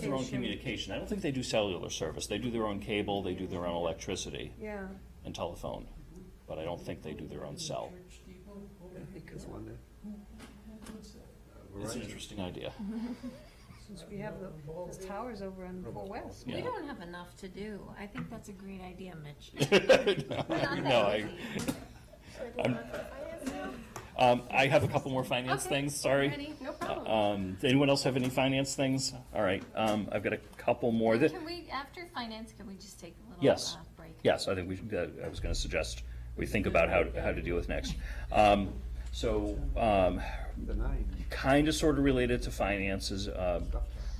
their own communication. communication. I don't think they do cellular service. They do their own cable, they do their own electricity Yeah, and telephone, but I don't think they do their own cell. That's one day. It's an interesting idea. since we have the, those towers over on Four West. Yeah. We don't have enough to do. I think that's a great idea, Mitch. Mm-hmm. No, I, um, I have a couple more finance Okay, things, sorry. Ready? No problem. Um, does anyone else have any finance things? All right, um, I've got a couple more that, Can we, after finance, can we just take a little Yes. uh, break? yes, I think we should, uh, I was gonna suggest we think about how, how to deal with next. Um, so, um, The nine. kinda sorta related to finances, uh,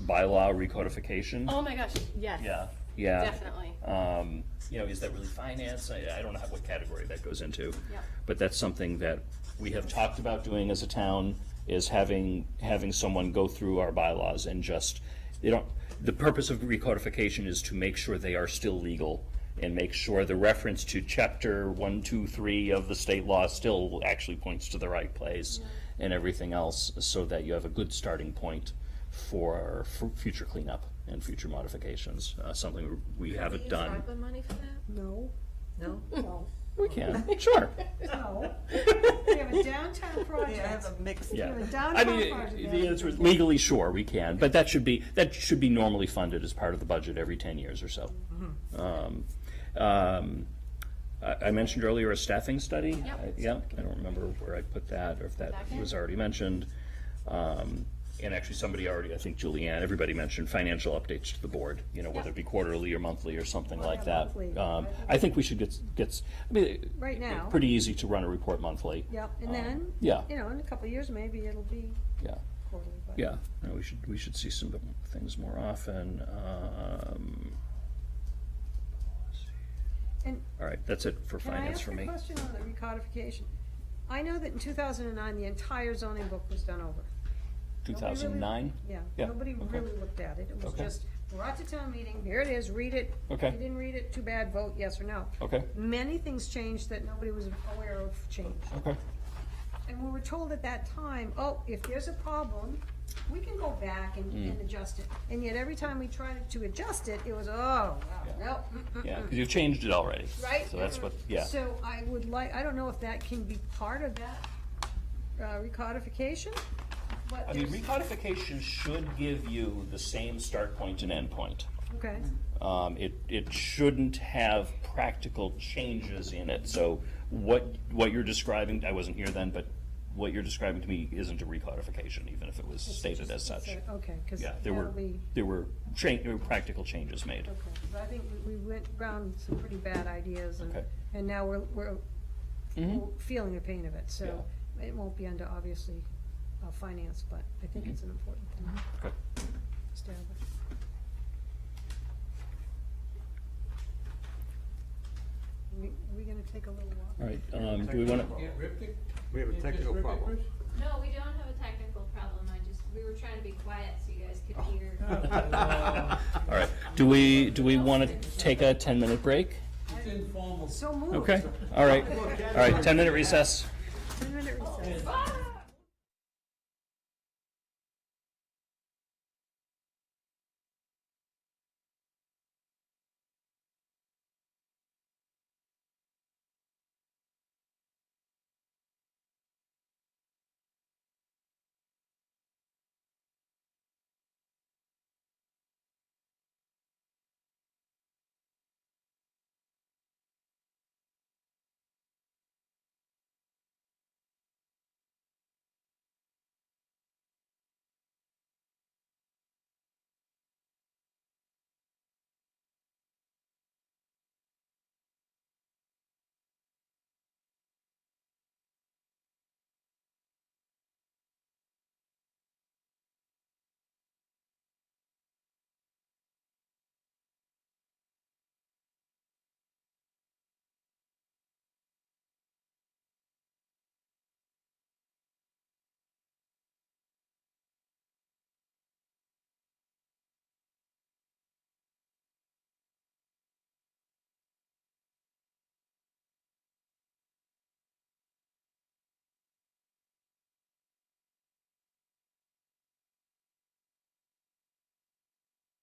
bylaw recodification. Oh my gosh, yes. Yeah, yeah. Definitely. Um, you know, is that really finance? I, I don't know what category that goes into. Yep. But that's something that we have talked about doing as a town, is having, having someone go through our bylaws and just, you know, the purpose of recodification is to make sure they are still legal and make sure the reference to chapter one, two, three of the state law still actually points to the right place and everything else, so that you have a good starting point for, for future cleanup and future modifications, uh, something we haven't done. ARPA money for that? No, No? no, We can, sure, no. We have a downtown project. mixed. yeah. The I mean, downtown part of it- that. the answer is legally, sure, we can, but that should be, that should be normally funded as part of the budget every ten years or so. Um, um, I, I mentioned earlier a staffing study. I- Yeah, I don't remember where I put that, or if that was already mentioned. Um, and actually, somebody already, I think Julianne, everybody mentioned financial updates to the board, you know, whether it be quarterly or monthly or something like that. monthly. Um, I think we should get, s- get, s- I mean. Right it- now. Pretty easy to run a report monthly. Yep, and Um, then, Yeah, you know, in a couple of years, maybe it'll be yeah. quarterly, but. Yeah, no, we should, we should see some things more often. Um, And All right, that's it for Can I finance ask for a me. question on the recodification? I know that in two thousand and nine, the entire zoning book was done over. Two Nobody really- thousand nine? Yeah, Yeah, nobody okay. really looked at it. It was Okay. just brought to town meeting, here it is, read it. Okay. If you didn't read it, too bad, vote yes or no. Okay, Many things changed that nobody was aware of changed. okay, And we were told at that time, oh, if there's a problem, we can go back and, Mm. and adjust it. And yet every time we tried to adjust it, it was, oh, Yeah. no, mm, mm, yeah, mm." 'cause you've changed it already. Right? So that's what, yeah. So I would like, I don't know if that can be part of that, uh, recodification, but I mean, there's, recodification should give you the same start point and end point. okay, Um, it, it shouldn't have practical changes in it, so what, what you're describing, I wasn't here then, but what you're describing to me isn't a recodification, even if it was stated as such. So, okay, cause Yeah, there that'll were, be, there were cha- there were practical changes made. okay, 'Cause I think we, we went around some pretty bad ideas and, Okay. Mm-hmm. and now we're, we're we're feeling the pain of it, so it won't be under, obviously, uh, finance, but I think it's Mm-hmm. an important thing Okay. to establish. We, we gonna take a little walk? All right, um, do we wanna, We have a technical problem. No, we don't have a technical problem, I just, we were trying to be quiet so you guys could Oh. hear. all right, do we, do we wanna take a ten-minute break? So moved. Okay, all right, all right, ten-minute recess. Ten minute recess. Bye!